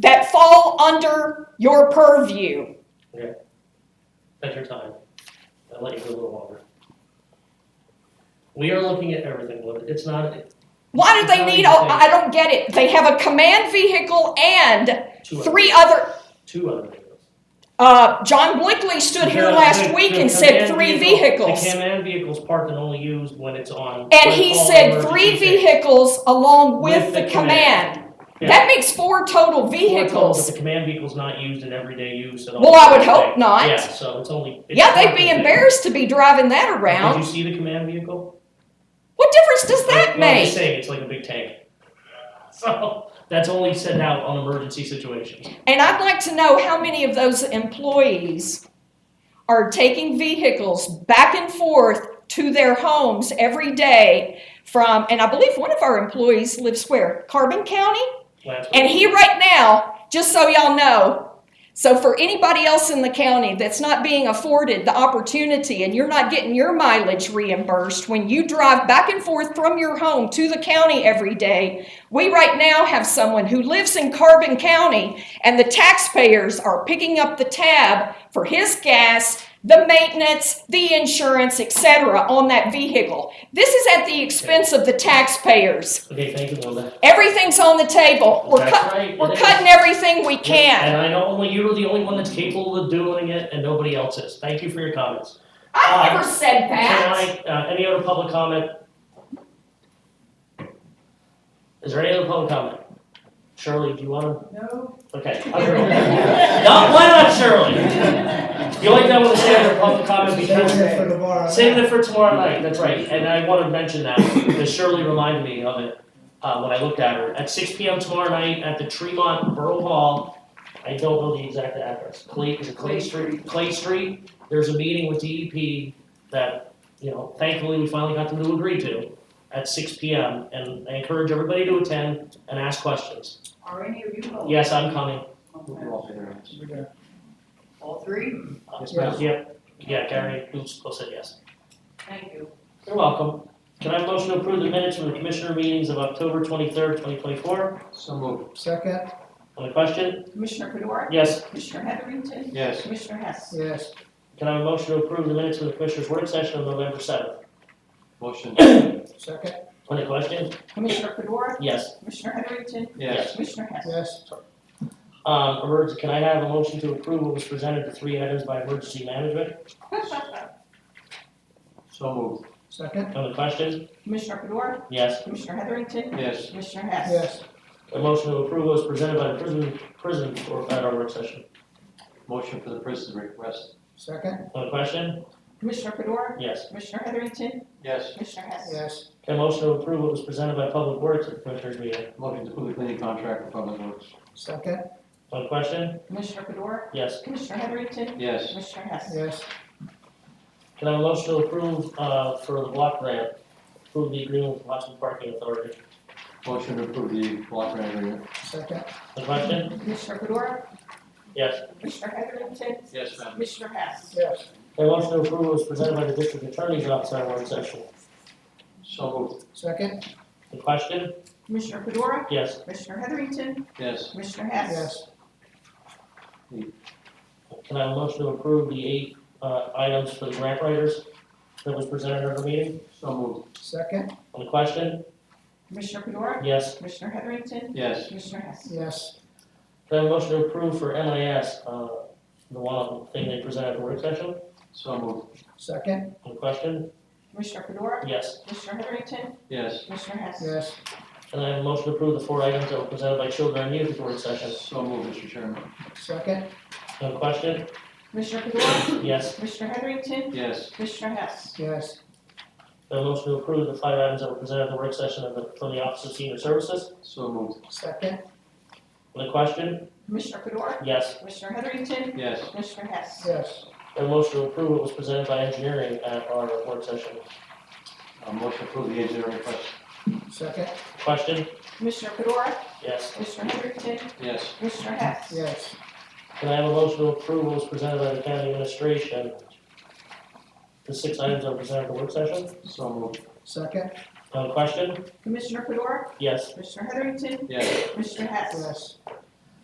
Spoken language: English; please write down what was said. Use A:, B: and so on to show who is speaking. A: that fall under your purview.
B: That's your time. I'll let you go a little longer. We are looking at everything, Linda. It's not
A: Why do they need, all- I don't get it. They have a command vehicle and
B: two other,
A: three other,
B: two other vehicles.
A: uh, John Blickley stood here
B: The-
A: last
B: the-
A: week
B: the
A: and said
B: command
A: three
B: vehicle-
A: vehicles.
B: The command vehicle's parked and only used when it's on.
A: And
B: when
A: he
B: called
A: said
B: emergency
A: three
B: vehicle.
A: vehicles along with
B: With
A: the
B: the
A: command.
B: Yeah.
A: That makes four total
B: We're told that
A: vehicles.
B: The command vehicle's not used in everyday use at all.
A: Well, I would hope
B: Yeah,
A: not.
B: so it's only. it's
A: Yeah, they'd be
B: parked.
A: embarrassed to be driving that
B: Did you
A: around.
B: see the command vehicle?
A: What difference does that
B: No, I'm just
A: make?
B: saying, it's like a big tank. So, that's only sent out on emergency situations.
A: And I'd like to know how many of those employees are taking vehicles back and forth to their homes every day from, and I believe one of our employees lives where? Carbon County?
B: Last
A: And
B: week.
A: he right now, just so y'all know, so for anybody else in the county that's not being afforded the opportunity and you're not getting your mileage reimbursed when you drive back and forth from your home to the county every day, we right now have someone who lives in Carbon County and the taxpayers are picking up the tab for his gas, the maintenance, the insurance, etc. on that vehicle. This is at the expense of the taxpayers.
B: Okay, thank you, Linda.
A: Everything's on the table. We're
B: That's
A: cut.
B: right,
A: We're
B: it is.
A: cutting everything we
B: And
A: can.
B: I know only you're the only one that's capable of doing it, and nobody else is. Thank you for your comments.
A: I never said that.
B: Can I, uh, any other public comment? Is there any other public comment? Shirley, do you wanna?
C: No.
B: Okay. I'm Shirley. No, why not Shirley? You only don't wanna say under public comment because
C: Save it for tomorrow.
B: Saving it for tomorrow night, that's right, and I wanted to mention that, because Shirley reminded me of it, uh, when I looked at her, at six P M tomorrow night at the Tremont Borough Hall. I don't know the exact address, Clay, is it Clay Street, Clay Street, there's a meeting with D E P that, you know, thankfully, we finally got them to agree to at six P M, and I encourage everybody to attend and ask questions.
C: Are any of you going?
B: Yes, I'm coming,
C: All three?
B: yeah, yeah, Gary, who's supposed to say yes.
C: Thank you.
B: You're welcome. Can I have a motion to approve the minutes from the commissioner meetings of October twenty-third, twenty twenty-four?
D: So moved.
C: Second?
B: On the question?
E: Commissioner Fedora,
B: Yes.
E: Commissioner Heatherington,
D: Yes.
E: Commissioner Hess.
C: Yes.
B: Can I have a motion to approve the minutes from the commissioner's work session of November seventh?
D: Motion.
C: Second?
B: On the question?
E: Commissioner Fedora,
B: Yes.
E: Commissioner Heatherington,
D: Yes.
E: Commissioner Hess.
C: Yes.
B: Um, emergency, can I have a motion to approve what was presented, the three items by emergency management?
D: So moved.
C: Second?
B: On the question?
E: Commissioner Fedora,
B: Yes.
E: Commissioner Heatherington,
D: Yes.
E: Commissioner Hess.
C: Yes.
B: A motion to approve what was presented by the prison, prison or at our work session?
D: Motion for the prison request.
C: Second?
B: On the question?
E: Commissioner Fedora,
B: Yes.
E: Commissioner Heatherington,
D: Yes.
E: Commissioner Hess.
C: Yes.
B: Can I have a motion to approve what was presented by public works at the commissioner's meeting?
D: Motion to approve the cleaning contract for public works.
C: Second?
B: On the question?
E: Commissioner Fedora,
B: Yes.
E: Commissioner Heatherington,
D: Yes.
E: Commissioner Hess.
C: Yes.
B: Can I have a motion to approve, uh, for the block grant, approve the agreement with Watson Parking Authority?
D: Motion to approve the block grant agreement.
C: Second?
B: The question?
E: Commissioner Fedora,
B: Yes.
E: Commissioner Heatherington,
D: Yes, ma'am.
E: Commissioner Hess.
C: Yes.
B: A motion to approve was presented by the district attorney's office on work session.
D: So moved.
C: Second?
B: The question?
E: Commissioner Fedora,
B: Yes.
E: Commissioner Heatherington,
D: Yes.
E: Commissioner Hess.
C: Yes.
B: Can I have a motion to approve the eight, uh, items for the grant writers that was presented at our meeting?
D: So moved.
C: Second?
B: On the question?
E: Commissioner Fedora,
B: Yes.
E: Commissioner Heatherington,
D: Yes.
E: Commissioner Hess.
C: Yes.
B: Can I have a motion to approve for MIS, uh, the one thing they presented at the work session?
D: So moved.
C: Second?
B: On the question?
E: Commissioner Fedora,
B: Yes.
E: Commissioner Heatherington,
D: Yes.
E: Commissioner Hess.
C: Yes.
B: Can I have a motion to approve the four items that were presented by children and youth at the work session?
D: So moved, Mr. Chairman.
C: Second?
B: On the question?
E: Commissioner Fedora,
B: Yes.
E: Commissioner Heatherington,
D: Yes.
E: Commissioner Hess.
C: Yes.
B: Can I have a motion to approve the five items that were presented at the work session of the, from the Office of Senior Services?
D: So moved.
C: Second?
B: On the question?
E: Commissioner Fedora,
B: Yes.
E: Commissioner Heatherington,
D: Yes.
E: Commissioner Hess.
C: Yes.
B: A motion to approve what was presented by engineering at our work session.
D: Uh, motion to approve the engineering request.
C: Second?
B: Question?
E: Commissioner Fedora,
B: Yes.
E: Commissioner Heatherington,
D: Yes.
E: Commissioner Hess.
C: Yes.
B: Can I have a motion to approve what was presented by the county administration? The six items that were presented at the work session?
D: So moved.
C: Second?
B: Uh, question?
E: Commissioner Fedora,
B: Yes.
E: Commissioner Heatherington,
D: Yes.
E: Commissioner Hess.
C: Yes.